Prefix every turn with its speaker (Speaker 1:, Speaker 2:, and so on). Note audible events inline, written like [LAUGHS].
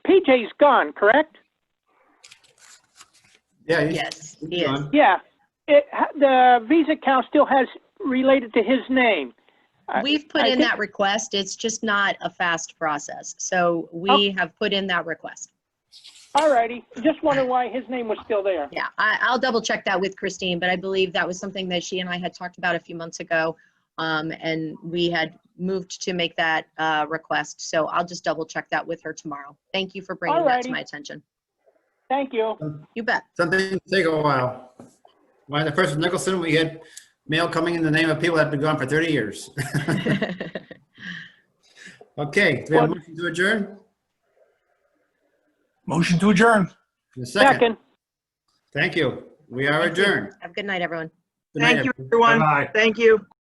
Speaker 1: PJ's gone, correct?
Speaker 2: Yeah, he's
Speaker 3: Yes, he is.
Speaker 2: gone.
Speaker 1: Yeah. It, the Visa account still has related to his name. I-
Speaker 3: We've put
Speaker 1: I
Speaker 3: in
Speaker 1: think-
Speaker 3: that request. It's just not a fast process. So
Speaker 1: Oh.
Speaker 3: we have put in that request.
Speaker 1: All righty. Just wonder why his name was still there.
Speaker 3: Yeah, I, I'll double check that with Christine, but I believe that was something that she and I had talked about a few months ago. Um, and we had moved to make that, uh, request. So I'll just double check that with her tomorrow. Thank you for bringing that to
Speaker 1: Alrighty.
Speaker 3: my attention.
Speaker 1: Thank you.
Speaker 3: You bet. [LAUGHS]
Speaker 2: Some things take a while. Why, the first with Nicholson, we had mail coming in the name of people that had been gone for 30 years. [LAUGHS] Okay, do we have a motion to adjourn?
Speaker 4: Motion to adjourn.
Speaker 2: A Second,
Speaker 1: Second.
Speaker 2: thank you. We are adjourned.
Speaker 3: Have a good night, everyone.
Speaker 2: Good night,
Speaker 5: Thank you,
Speaker 2: everyone.
Speaker 5: everyone.
Speaker 4: Bye.
Speaker 5: Thank you.